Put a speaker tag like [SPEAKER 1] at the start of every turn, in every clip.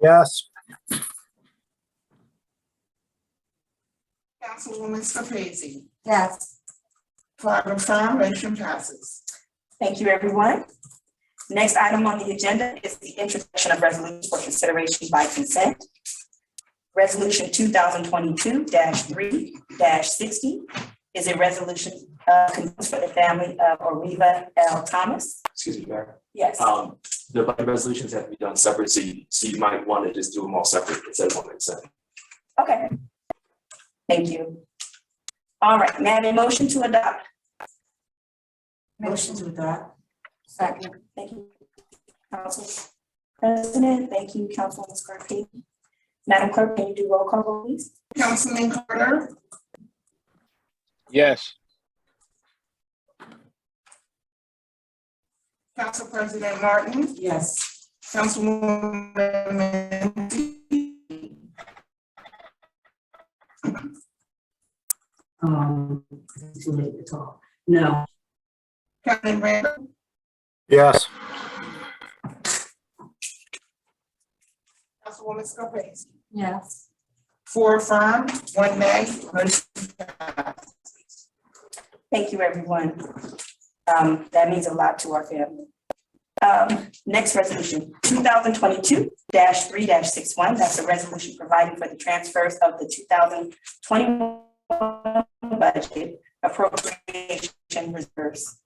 [SPEAKER 1] Yes.
[SPEAKER 2] Councilwoman Scarpese.
[SPEAKER 3] Yes.
[SPEAKER 2] Five of five, motion passes.
[SPEAKER 3] Thank you, everyone. Next item on the agenda is the introduction of resolutions for consideration by consent. Resolution two thousand twenty-two three sixty is a resolution uh, condemns for the family of Oriva L. Thomas.
[SPEAKER 4] excuse me, Mayor.
[SPEAKER 3] Yes,
[SPEAKER 4] Um, the budget resolutions have to be done separate, so you, so you might want to just do them all separate instead of one at a time.
[SPEAKER 3] okay. Thank you. All right, may I have a motion to adopt? Motion to adopt. Second. Thank you, Council President. Thank you, Councilwoman Scarpelli. Madam Clerk, can you do roll call, vote, please?
[SPEAKER 2] Councilman Carter,
[SPEAKER 5] Yes,
[SPEAKER 2] Council President Martin,
[SPEAKER 3] Yes.
[SPEAKER 2] Councilwoman Mancy,
[SPEAKER 6] Um, it's too late to talk. No,
[SPEAKER 2] Councilman Randall,
[SPEAKER 1] Yes.
[SPEAKER 2] Councilwoman Scarpese.
[SPEAKER 3] Yes.
[SPEAKER 2] Four affirm, one nay, motion passes.
[SPEAKER 3] Thank you, everyone. Um, that means a lot to our family. Um, next resolution, two thousand twenty-two three 61 that's a resolution providing for the transfers of the two thousand twenty-one budget appropriation reserves.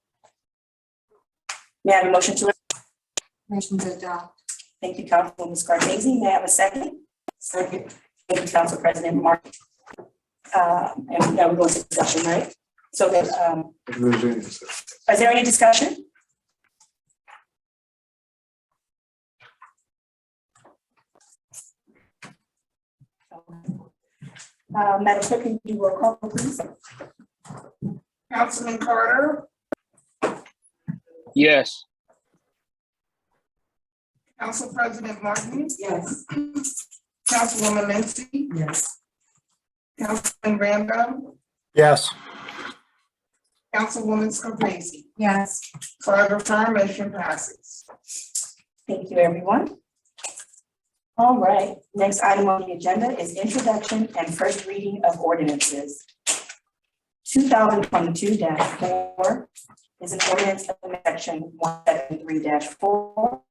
[SPEAKER 3] May I have a motion to? Motion to adopt. Thank you, Councilwoman Scarpese. May I have a second? Second. Thank you, Council President Martin. Uh, and now we're going to discussion, right? So there's, um, is there any discussion? Uh, Madam Clerk, can you do roll call, please?
[SPEAKER 2] Councilman Carter,
[SPEAKER 5] yes,
[SPEAKER 2] Council President Martin,
[SPEAKER 6] yes,
[SPEAKER 2] Councilwoman Mancy,
[SPEAKER 6] yes,
[SPEAKER 2] Councilman Randall,
[SPEAKER 1] Yes.
[SPEAKER 2] Councilwoman Scarpese.
[SPEAKER 3] Yes.
[SPEAKER 2] Five affirm, motion passes.
[SPEAKER 3] Thank you, everyone. All right, next item on the agenda is introduction and first reading of ordinances. Two thousand twenty-two four is an ordinance of section one seven three four,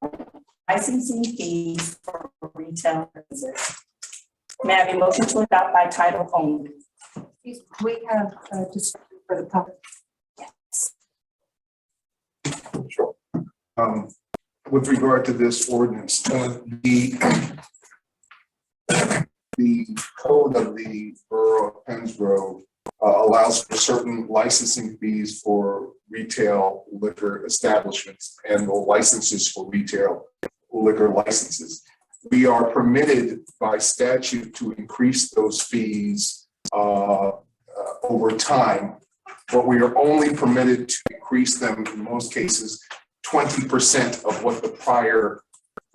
[SPEAKER 3] licensing fees for retail business. May I have a motion to adopt by title only?
[SPEAKER 7] We have uh, just for the public.
[SPEAKER 8] um, with regard to this ordinance, uh, the the code of the Borough of Pennsborough uh, allows for certain licensing fees for retail liquor establishments and licenses for retail liquor licenses. We are permitted by statute to increase those fees uh, uh, over time, but we are only permitted to increase them in most cases twenty percent of what the prior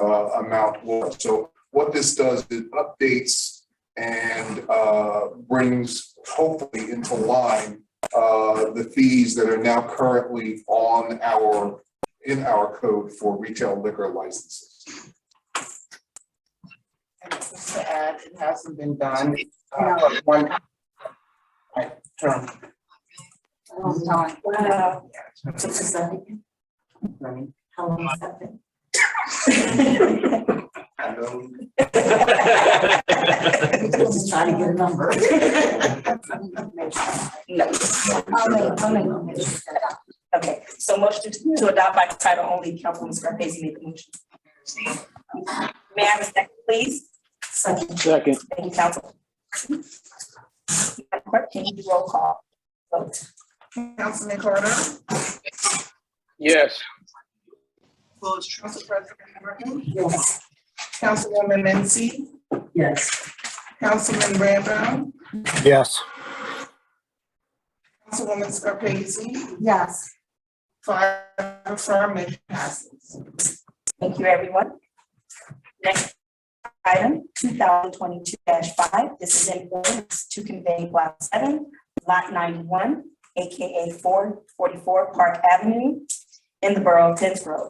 [SPEAKER 8] uh, amount was. So what this does, it updates and uh, brings hopefully into line uh, the fees that are now currently on our, in our code for retail liquor licenses.
[SPEAKER 2] And just to add, it hasn't been done. uh, One. Right, term.
[SPEAKER 3] Mm-hmm.
[SPEAKER 7] Um, Dawn,
[SPEAKER 3] Wow.
[SPEAKER 7] Just a second.
[SPEAKER 2] Running.
[SPEAKER 7] How long has that been?
[SPEAKER 2] I know.
[SPEAKER 7] Just trying to get a number.
[SPEAKER 3] No.
[SPEAKER 7] I'll make, I'll make a motion.
[SPEAKER 3] Okay, so motion to to adopt by title only, Councilwoman Scarpese made the motion. May I have a second, please?
[SPEAKER 7] Second,
[SPEAKER 5] second,
[SPEAKER 3] Thank you, Council. Madam Clerk, can you do roll call? Vote.
[SPEAKER 2] Councilman Carter,
[SPEAKER 5] yes,
[SPEAKER 2] Council President Martin,
[SPEAKER 7] yes,
[SPEAKER 2] Councilwoman Mency,
[SPEAKER 6] yes,
[SPEAKER 2] Councilman Rambo,
[SPEAKER 1] Yes.
[SPEAKER 2] Councilwoman Scarpese,
[SPEAKER 7] yes,
[SPEAKER 2] five affirmative passes.
[SPEAKER 3] Thank you, everyone. Next item, two thousand twenty-two five, this is an ordinance to convey block seven, lot ninety-one, AKA four forty-four Park Avenue in the Borough of Tinsboro